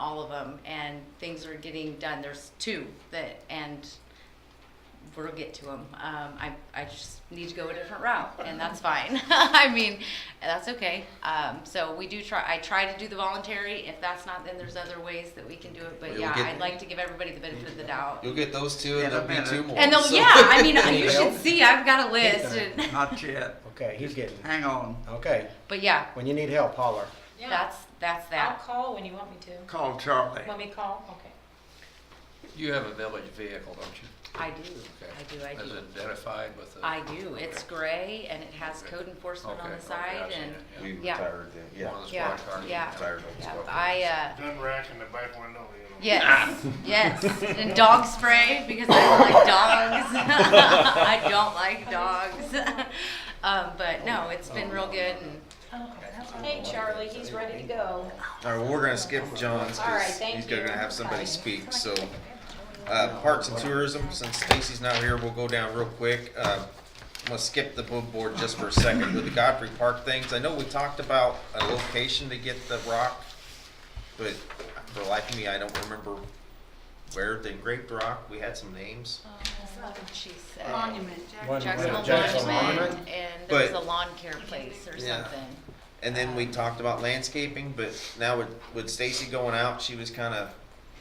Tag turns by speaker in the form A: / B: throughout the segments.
A: of them, and things are getting done. There's two that, and we'll get to them. Um, I, I just need to go a different route, and that's fine. I mean, that's okay. Um, so we do try, I try to do the voluntary. If that's not, then there's other ways that we can do it.
B: We
A: But
B: will
A: yeah,
B: get-
A: I'd like to give everybody the benefit of the doubt.
B: You'll get those two,
C: In
B: and
C: a
B: there'll be two
C: minute.
B: more.
A: And they'll,
B: so-
A: yeah, I mean, you
B: know?
A: should see, I've got a list. and-
C: Not yet.
D: Okay, he's getting,
C: Hang on.
D: okay,
A: But yeah,
D: when you need help, holler.
E: Yeah.
A: that's, that's
E: I'll
A: that.
E: call when you want me to.
C: Call Charlie.
E: Want me to call? Okay.
F: You have a village vehicle, don't you?
A: I do,
F: Okay.
A: I do, I do.
F: That's identified with the.
A: I do. It's gray and it has
F: Okay.
A: code enforcement on
F: Okay, Oh,
A: the
F: okay,
A: side
F: I've seen
A: and,
F: it, yeah.
B: We
A: Yeah.
B: retired then, yeah.
F: One of the
A: yeah,
F: squad cars.
A: yeah.
B: Retired on
A: yeah,
B: squad cars.
A: I, uh,
G: Gun rack in the back window, you know.
A: yes, yes. And dog spray because I don't like dogs. I don't like dogs. Um, but no, it's been real good and
E: Hey, Charlie, he's ready to go.
B: All right, well, we're gonna skip John's
E: All right,
B: because
E: thank
B: he's gonna
E: you.
B: have somebody speak, so. Uh, parks and tourism, since Stacy's not here, we'll go down real quick. Uh, I'm gonna skip the book board just for a second with the Godfrey Park things. I know we talked about a location to get the rock, but for the life of me, I don't remember where the engraved rock, we had some names.
A: what did she say?
H: Monument,
D: One-
A: Jackson
D: one-
A: uh, Monument
D: Jackson Monument.
A: and there was a
B: But-
A: lawn care place or
B: Yeah.
A: something.
B: And then we talked about landscaping, but now with, with Stacy going out, she was kinda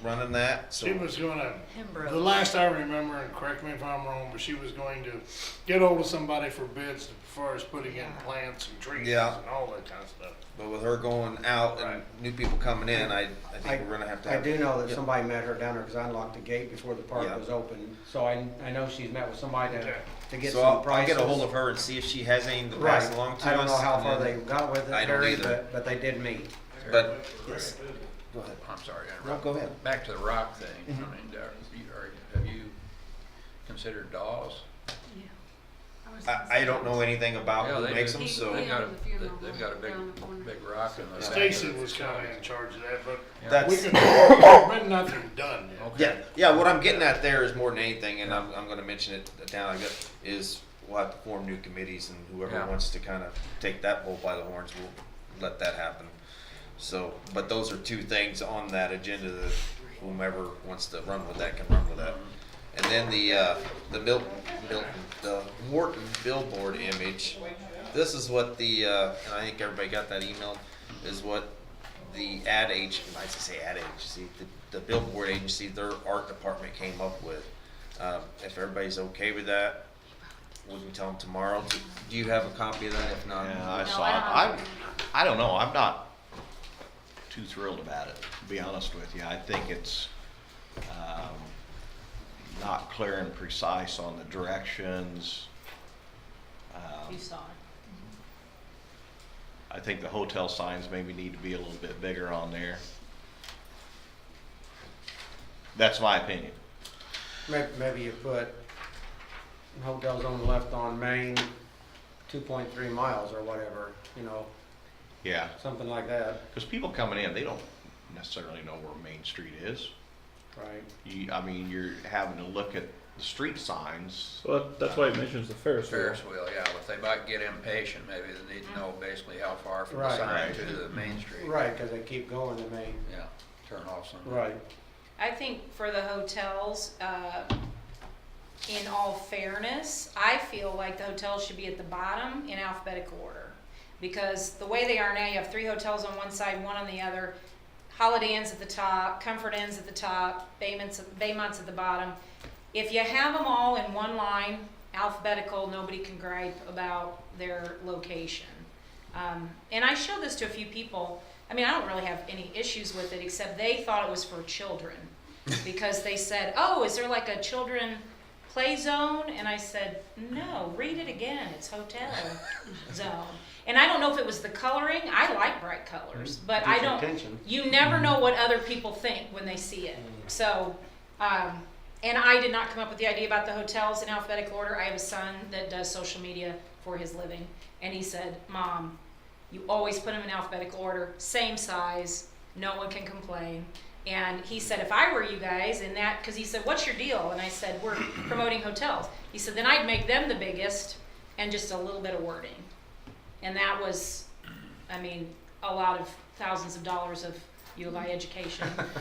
B: running that, so.
G: She was gonna,
A: Pembroke.
G: the last I remember, and correct me if I'm wrong, but she was going to get hold of somebody for bids as far as putting in plants and trees
B: Yeah.
G: and all that kind of stuff.
B: But with her going out and new people coming in, I, I
D: I,
B: think we're gonna have to.
D: I
B: have-
D: do know that
B: Yep.
D: somebody met her down there because I unlocked the gate before the park
B: Yeah.
D: was open. So I, I know she's met with somebody to,
G: Okay.
D: to get
B: So
D: some
B: I'll, I'll
D: prices.
B: get a hold of her and see if she has anything to
D: Right.
B: pass along to us.
D: I don't know how
B: and
D: far they
B: then-
D: got with it,
B: I don't
D: Barry,
B: either.
D: but, but they did meet.
B: But, go ahead.
F: I'm sorry, I
B: No,
F: interrupted.
B: go ahead.
F: Back to the rock thing, I mean, are you- are you- have you considered dolls?
H: yeah. was-
B: I, I don't know anything about
F: Yeah,
B: who
F: they
B: makes
F: do.
B: them,
H: He-
B: so.
F: They've got a,
H: Yeah, the funeral
F: they've got a
H: home
F: big,
H: down the corner.
F: big rock in the. back of
G: Stacy
F: the
G: was kinda in charge of that, but
F: Yeah.
G: we
B: That's,
G: could, but nothing done yet.
F: Okay.
B: yeah, yeah, what I'm getting at there is more than anything, and I'm, I'm gonna mention it down, I guess, is we'll have to form new committees and whoever
F: Yeah.
B: wants to kind of take that bull by the horns, we'll let that happen. So, but those are two things on that agenda that whomever wants to run with that can run with that. And then the, uh, the Milton, Milton, the Morton billboard image, this is what the, uh, and I think everybody got that email, is what the ad age, I should say ad agency, the, the billboard agency, their art department came up with. Um, if everybody's okay with that, we can tell them tomorrow. Do- Do you have a copy of that? If not,
I: Yeah, I
H: No,
I: saw
H: I
I: it.
H: don't
I: I,
H: have
I: I don't know, I'm not too thrilled about it, to be honest with you. I think it's, um, not clear and precise on the directions. Um,
E: You saw it.
I: I think the hotel signs maybe need to be a little bit bigger on there. That's my opinion.
D: Maybe, maybe you put hotels on the left on Main, two point three miles or whatever, you know,
I: Yeah,
D: something like that,
I: because people coming in, they don't necessarily know where Main Street is.
D: right?
I: You, I mean, you're having to look at the street signs.
J: Well, that- that's why it mentions the Ferris wheel.
F: Ferris wheel, yeah, if they might get impatient, maybe they need to know
A: Mm-hmm.
F: basically how far from the
D: Right.
F: sign
I: Right.
F: to the main street.
D: Right, because they keep going to Main,
F: Yeah, turn off some.
D: right.
E: I think for the hotels, uh, in all fairness, I feel like the hotels should be at the bottom in alphabetical order. Because the way they are now, you have three hotels on one side, one on the other. Holiday Inn's at the top, Comfort Inn's at the top, Baymont's, Baymont's at the bottom. If you have them all in one line, alphabetical, nobody can gripe about their location. Um, and I showed this to a few people. I mean, I don't really have any issues with it, except they thought it was for children. Because they said, oh, is there like a children play zone? And I said, no, read it again, it's hotel zone. And I don't know if it was the coloring, I like bright colors, but I
D: Gets your
E: don't,
D: attention.
E: you never know what other people think when they see it. So, um, and I did not come up with the idea about the hotels in alphabetical order. I have a son that does social media for his living, and he said, Mom, you always put them in alphabetical order, same size, no one can complain. And he said, if I were you guys in that, because he said, what's your deal? And I said, we're promoting hotels. He said, then I'd make them the biggest and just a little bit of wording. And that was, I mean, a lot of thousands of dollars of U of I education